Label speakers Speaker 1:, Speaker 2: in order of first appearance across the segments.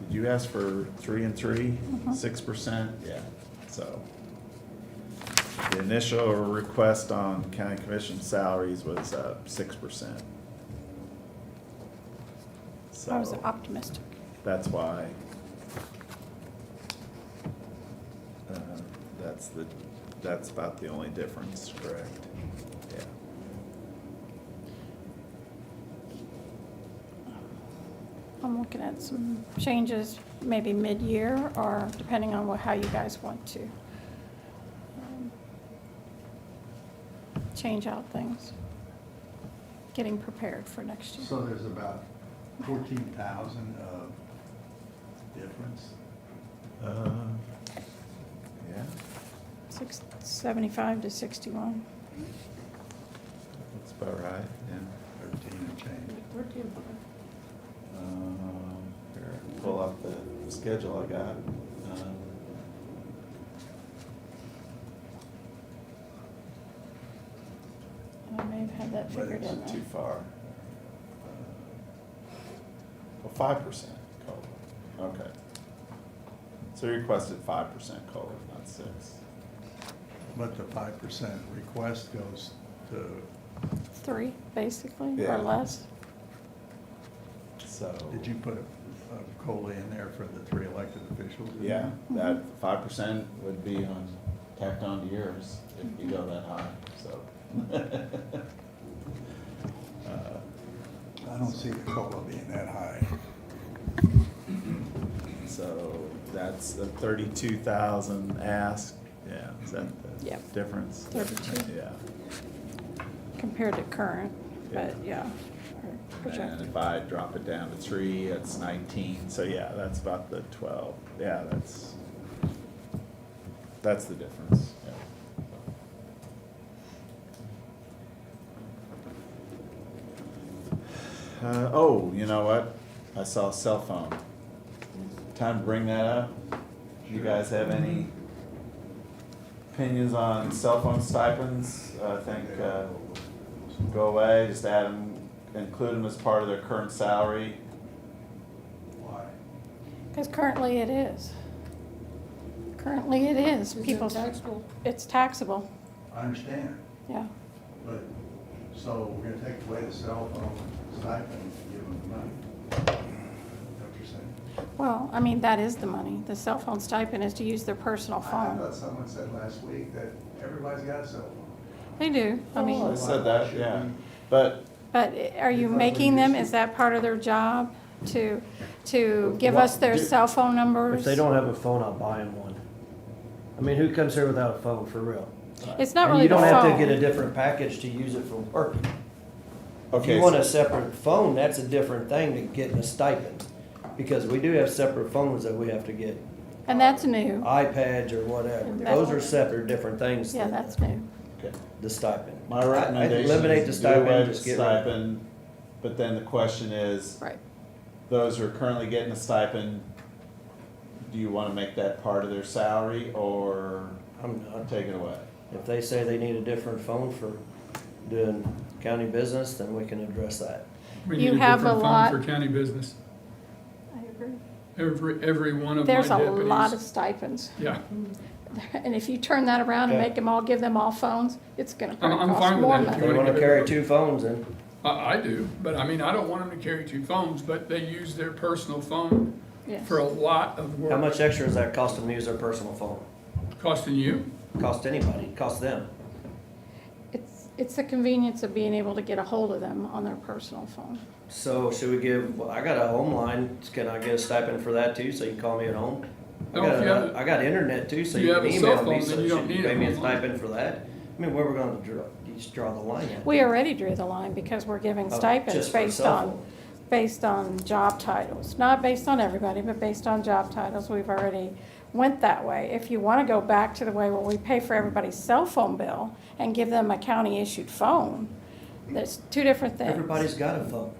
Speaker 1: Did you ask for three and three, six percent? Yeah, so. The initial request on county commission salaries was, uh, six percent.
Speaker 2: I was
Speaker 1: So,
Speaker 2: optimistic.
Speaker 1: that's why. uh, That's the, that's about the only difference, correct? Yeah.
Speaker 2: I'm looking at some changes, maybe mid-year, or depending on what, how you guys want to um, change out things. Getting prepared for next year.
Speaker 3: So there's about fourteen thousand of difference?
Speaker 1: Uh, Yeah,
Speaker 2: Six, seventy-five to sixty-one.
Speaker 1: that's about right, yeah.
Speaker 3: Thirteen and change.
Speaker 1: Um, Here, pull up the schedule I got. Um,
Speaker 2: I may have had that
Speaker 1: But
Speaker 2: figured in
Speaker 1: it's too
Speaker 2: there.
Speaker 1: far. Uh, Well, Uh, five percent COLA, okay. So you requested five percent COLA, not six.
Speaker 3: But the five percent request goes to,
Speaker 2: Three, basically,
Speaker 1: Yeah.
Speaker 2: or less.
Speaker 1: So,
Speaker 3: did you put a a COLA in there for the three elected officials? in
Speaker 1: yeah,
Speaker 3: there?
Speaker 1: that five percent would be on, tacked on to yours if you go that high, so. Uh,
Speaker 3: I don't see the COLA being that high.
Speaker 1: So that's the thirty-two thousand ask, yeah, is that the
Speaker 2: Yep.
Speaker 1: difference?
Speaker 2: 32.
Speaker 1: Yeah.
Speaker 2: compared to current, but yeah. or
Speaker 1: And
Speaker 2: projected.
Speaker 1: if I drop it down to three, that's nineteen, so yeah, that's about the twelve, yeah, that's, that's the difference, yeah. Uh, oh, you know what, I saw cell phone, time to bring that up, you guys have any opinions on cell phone stipends, I think, uh, go away, just add them, include them as part of their current salary.
Speaker 3: Why?
Speaker 2: Because currently it is. Currently it is. People's,
Speaker 4: taxable.
Speaker 2: it's taxable,
Speaker 3: I understand,
Speaker 2: yeah.
Speaker 3: but, so we're gonna take away the cell phone stipend and give them the money? Don't you say?
Speaker 2: Well, I mean, that is the money. The cell phone stipend is to use their personal
Speaker 3: I
Speaker 2: phone.
Speaker 3: thought someone said last week that everybody's got a cell phone.
Speaker 2: They do, I
Speaker 1: I
Speaker 5: Oh,
Speaker 2: mean,
Speaker 1: said that, yeah, but
Speaker 2: Oh. but are you making them, is that part of their job to, to give us their cell phone numbers?
Speaker 5: If they don't have a phone, I'll buy them one. I mean, who comes here without a phone, for real?
Speaker 2: It's not
Speaker 5: And
Speaker 2: really the
Speaker 5: You don't have to get a
Speaker 2: phone.
Speaker 5: different package to use it for work. If
Speaker 1: okay,
Speaker 5: you want
Speaker 1: so-
Speaker 5: a separate phone, that's a different thing than getting a stipend. Because we do have separate phones that we have to get,
Speaker 2: And that's new.
Speaker 5: Uh, iPads or whatever.
Speaker 2: And
Speaker 5: Those are
Speaker 2: that's-
Speaker 5: separate, different things
Speaker 2: Yeah,
Speaker 5: than
Speaker 2: that's new.
Speaker 1: okay.
Speaker 5: the stipend.
Speaker 1: my
Speaker 5: I- I'd
Speaker 1: recommendation
Speaker 5: Eliminate the
Speaker 1: is to do away
Speaker 5: stipend,
Speaker 1: with
Speaker 5: just get rid of it.
Speaker 1: stipend, but then the question is,
Speaker 2: Right.
Speaker 1: those who are currently getting a stipend, do you wanna make that part of their salary or
Speaker 5: I'm not.
Speaker 1: take it away?
Speaker 5: If they say they need a different phone for doing county business, then we can address that.
Speaker 6: We
Speaker 2: You
Speaker 6: need a
Speaker 2: have a
Speaker 6: different
Speaker 2: lot-
Speaker 6: phone for county business.
Speaker 2: I agree.
Speaker 6: Every, every one of my
Speaker 2: There's
Speaker 6: deputies.
Speaker 2: a lot of stipends.
Speaker 6: Yeah,
Speaker 2: And if you turn that around and
Speaker 5: Okay.
Speaker 2: make them all, give them all phones, it's gonna
Speaker 6: I'm-
Speaker 2: probably
Speaker 6: I'm
Speaker 2: cost
Speaker 6: fine with
Speaker 2: more
Speaker 6: that if
Speaker 5: If
Speaker 2: money.
Speaker 5: they
Speaker 6: wanna
Speaker 5: wanna
Speaker 6: get rid
Speaker 5: carry
Speaker 6: of-
Speaker 5: two phones, then
Speaker 6: I, I do, but I mean, I don't want them to carry two phones, but they use their personal phone
Speaker 2: Yes.
Speaker 6: for a lot of work.
Speaker 5: How much extra does that cost them to use their personal phone?
Speaker 6: Costing you?
Speaker 5: Cost anybody, cost them.
Speaker 2: It's, it's the convenience of being able to get a hold of them on their personal phone.
Speaker 5: So should we give, well, I got a home line, can I get a stipend for that too, so you can call me at home? I
Speaker 6: No, if
Speaker 5: got,
Speaker 6: you have
Speaker 5: a-
Speaker 6: a-
Speaker 5: I got internet too, so
Speaker 6: if you
Speaker 5: you
Speaker 6: have
Speaker 5: can
Speaker 6: a cell
Speaker 5: email me,
Speaker 6: phone,
Speaker 5: so
Speaker 6: then you
Speaker 5: should
Speaker 6: don't
Speaker 5: you
Speaker 6: need
Speaker 5: pay
Speaker 6: a
Speaker 5: me a
Speaker 6: home line.
Speaker 5: stipend for that? I mean, where we gonna draw, you just draw the line at?
Speaker 2: We already drew the line because we're giving
Speaker 5: Oh,
Speaker 2: stipends
Speaker 5: just for
Speaker 2: based
Speaker 5: cell
Speaker 2: on,
Speaker 5: phone.
Speaker 2: based on job titles. Not based on everybody, but based on job titles, we've already went that way. If you wanna go back to the way where we pay for everybody's cell phone bill and give them a county-issued phone, that's two different things.
Speaker 5: Everybody's got a phone.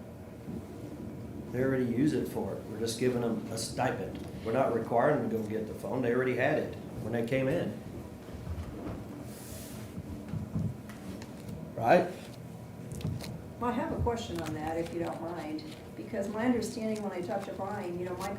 Speaker 5: They already use it for it, we're just giving them a stipend. We're not requiring them to go get the phone, they already had it when they came in. Right?
Speaker 4: Well, I have a question on that, if you don't mind, because my understanding when I talked to Brian, you know, my